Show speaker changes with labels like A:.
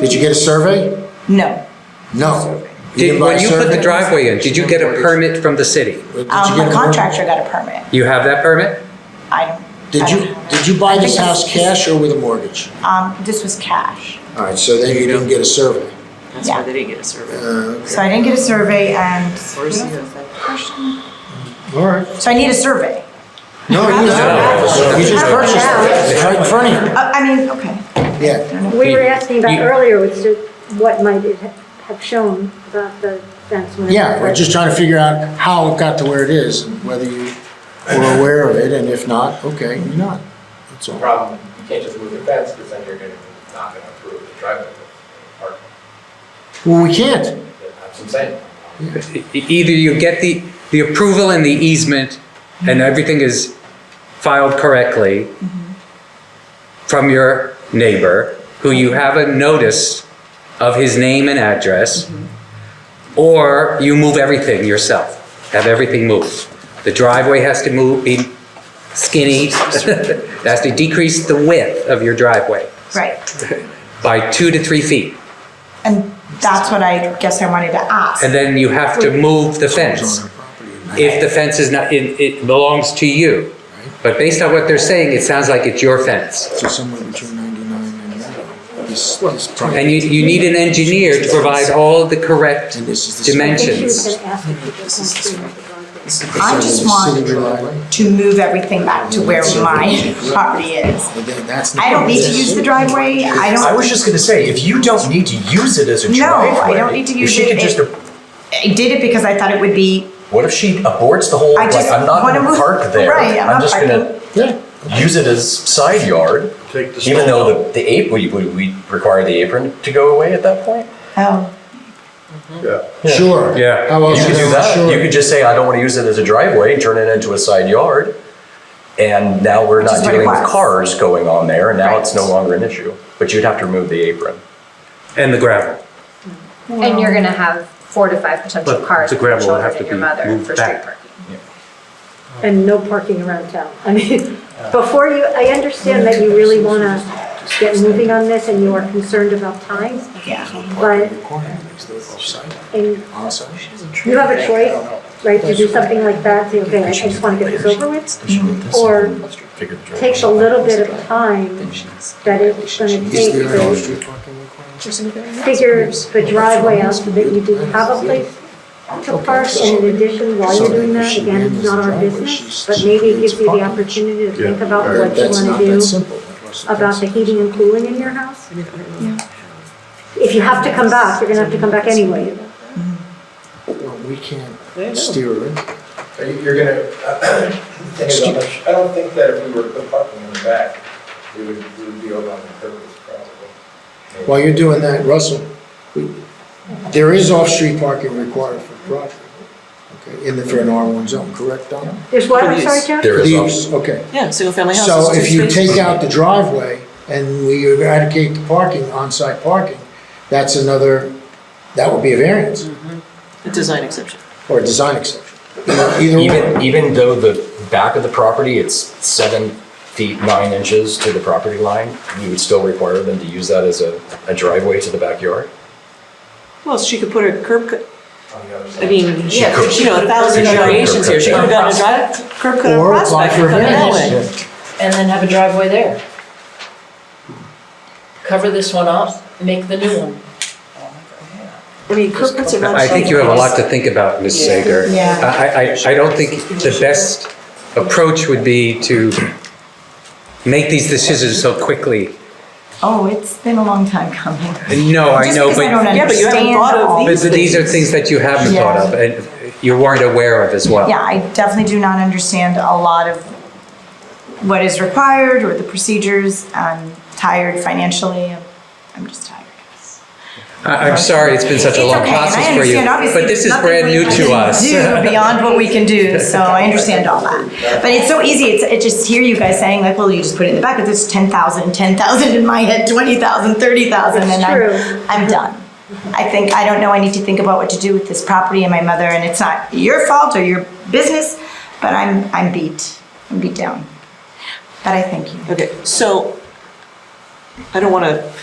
A: Did you get a survey?
B: No.
A: No.
C: Did,
A: didn't buy
C: when
A: a
C: you put the
A: survey?
C: driveway in, did you get a permit from the city?
A: Did you
B: Um,
A: get
B: the
A: a-
B: contractor got a permit.
C: You have that permit?
B: I don't.
A: Did
B: I
A: you,
B: don't have
A: did
B: it.
A: you buy
B: I
A: this
B: think
A: house
B: it's-
A: cash or with a mortgage?
B: Um, this was cash.
A: All right, so then you didn't get a survey.
D: That's why
B: Yeah.
D: they didn't get a survey.
A: Uh,
B: So I didn't get a survey and.
D: Where's the-
B: So
A: All right.
B: I need a survey.
A: No, you
B: No.
A: don't. You just
B: No.
A: purchased it. It's right in front of
B: Uh, I mean, okay.
A: you. Yeah.
E: We were asking about
C: You-
E: earlier, was it what might it ha- have shown about the fence? when it
A: Yeah, we're
E: was-
A: just trying to figure out how it got to where it is and whether you were aware of it, and if not, okay, you're not. That's all.
F: problem, you can't just move the fence, because then you're gonna, not gonna approve the driveway, the park,
A: Well, we can't.
F: that's what I'm saying.
C: E- Either you get the, the approval and the easement, and everything is filed correctly from your neighbor, who you have a notice of his name and address, or you move everything yourself, have everything moved. The driveway has to move, be skinny, it has to decrease the width of your driveway
B: Right.
C: by two to three feet.
B: And that's what I guess I wanted to ask.
C: And then you have to move the fence. If the fence is not, it, it belongs to you. But based on what they're saying, it sounds like it's your fence.
A: So somewhere between 99 and uh, this, this
C: And
A: property.
C: you, you need an engineer to provide all the correct
A: And this is the-
E: I think she was
C: dimensions.
E: going to ask if you could come through with the driveway.
B: I just want
A: City driveway.
B: to move everything back to where my property is.
A: But then that's not-
B: I don't need to use the driveway. I
G: I
B: don't,
G: was just gonna say, if you don't need to use it as a
B: No, I
G: driveway.
B: don't need to
G: if
B: use
G: she
B: it.
G: could just
B: It-
G: ab-
B: I did it because I thought it would be,
G: What if she aborts the whole,
B: I
G: like,
B: just
G: I'm not
B: wanna
G: gonna
B: move-
G: park there.
B: Right, I'm not
G: just gonna
A: Yeah.
G: use it as side yard. Even though the, the apron, we, would we require the apron to go away at that point?
B: oh,
A: Sure.
C: Yeah.
A: How else
G: You
A: is
G: could do
A: it
G: that. You
A: sure?
G: could just say, I don't wanna use it as a driveway, and turn it into a side yard. And now we're
B: Which is
G: not
B: what it
G: dealing with
B: was.
G: cars going on there, and now it's
B: Right.
G: no longer an issue. But you'd have to remove the apron.
C: And the gravel.
H: And you're gonna have four to five potential
C: But
H: cars,
C: the gravel will
H: children
C: have to
H: and your
C: be
H: mother
C: moved
H: for
C: back.
H: street parking.
E: and no parking around town. I mean, before you, I understand that you really want to get moving on this and you are concerned about time,
B: yeah.
E: but and you have a choice, right, to do something like that, say, okay, I just want to get this over with, or take a little bit of time that it's going to
A: Is
E: take
A: there an
E: to
A: off-street parking requirement?
E: figure the driveway out so that you do have a place to park, and in addition, while you're doing that, again, it's not our business, but maybe it gives you the opportunity to think about what you
A: That's
E: want
A: not
E: to
A: that
E: do
A: simple.
E: about the heating and cooling in your house? If you have to come back, you're gonna have to come back anyway.
A: Well, We can't steer it.
F: Are you- You're gonna, uh, the thing is, I'm not su- I don't think that if we were to put parking in the back, we would, we would be over on the purpose probably.
A: While you're doing that, Russell, we- there is off-street parking required for property, okay, in the, for an R1 zone, correct, Don?
E: There's what, I'm sorry, Joe?
G: There is also.
A: These- Okay,
D: Yeah, single-family houses.
A: so
D: two
A: if you
D: spaces.
A: take out the driveway and we eradicate the parking, on-site parking, that's another, that would be a variance
D: A design exception.
A: or a design exception. Either
G: Even,
A: one,
G: even though the back of the property, it's seven feet, nine inches to the property line, you would still require them to use that as a, a driveway to the backyard?
D: Well, she could put her curb cut,
F: on the other
D: I
F: side.
D: mean,
G: She
D: yeah,
G: could.
D: you know, a thousand
G: She could
D: variations here. She could have gotten a drive, curb cut on
A: or apply
D: Prospect,
A: for a
D: come that way.
A: variance.
I: and then have a driveway there. Cover this one off, make the new one.
D: I mean, curb cuts are not.
C: I think you have a lot to think about, Ms. Sager.
B: Yeah.
C: I, I, I don't think the best approach would be to make these decisions so quickly.
B: Oh, it's been a long time coming.
C: No, I
B: Just
C: know,
B: because I don't
C: but,
D: Yeah, but you haven't
B: understand
D: thought of
B: all-
D: these
C: but these are things that you haven't
B: Yeah.
C: thought of, and you weren't aware of as well.
B: Yeah, I definitely do not understand a lot of what is required or the procedures. I'm tired financially. I'm just tired.
C: I- I'm sorry, it's been such a
B: It's
C: long
B: okay, and I
C: process for you,
B: understand, obviously,
C: but this
B: there's
C: is brand new
B: nothing we
C: to
B: can
C: us.
B: Do beyond what we can do, so I understand all that. But it's so easy, it's, it just hear you guys saying like, well, you just put it in the back, but there's 10,000, 10,000 in my head, 20,000, 30,000, and
E: It's true.
B: I'm, I'm done. I think, I don't know, I need to think about what to do with this property and my mother, and it's not your fault or your business, but I'm, I'm beat, I'm beat down. But I thank you.
D: Okay, so I don't want to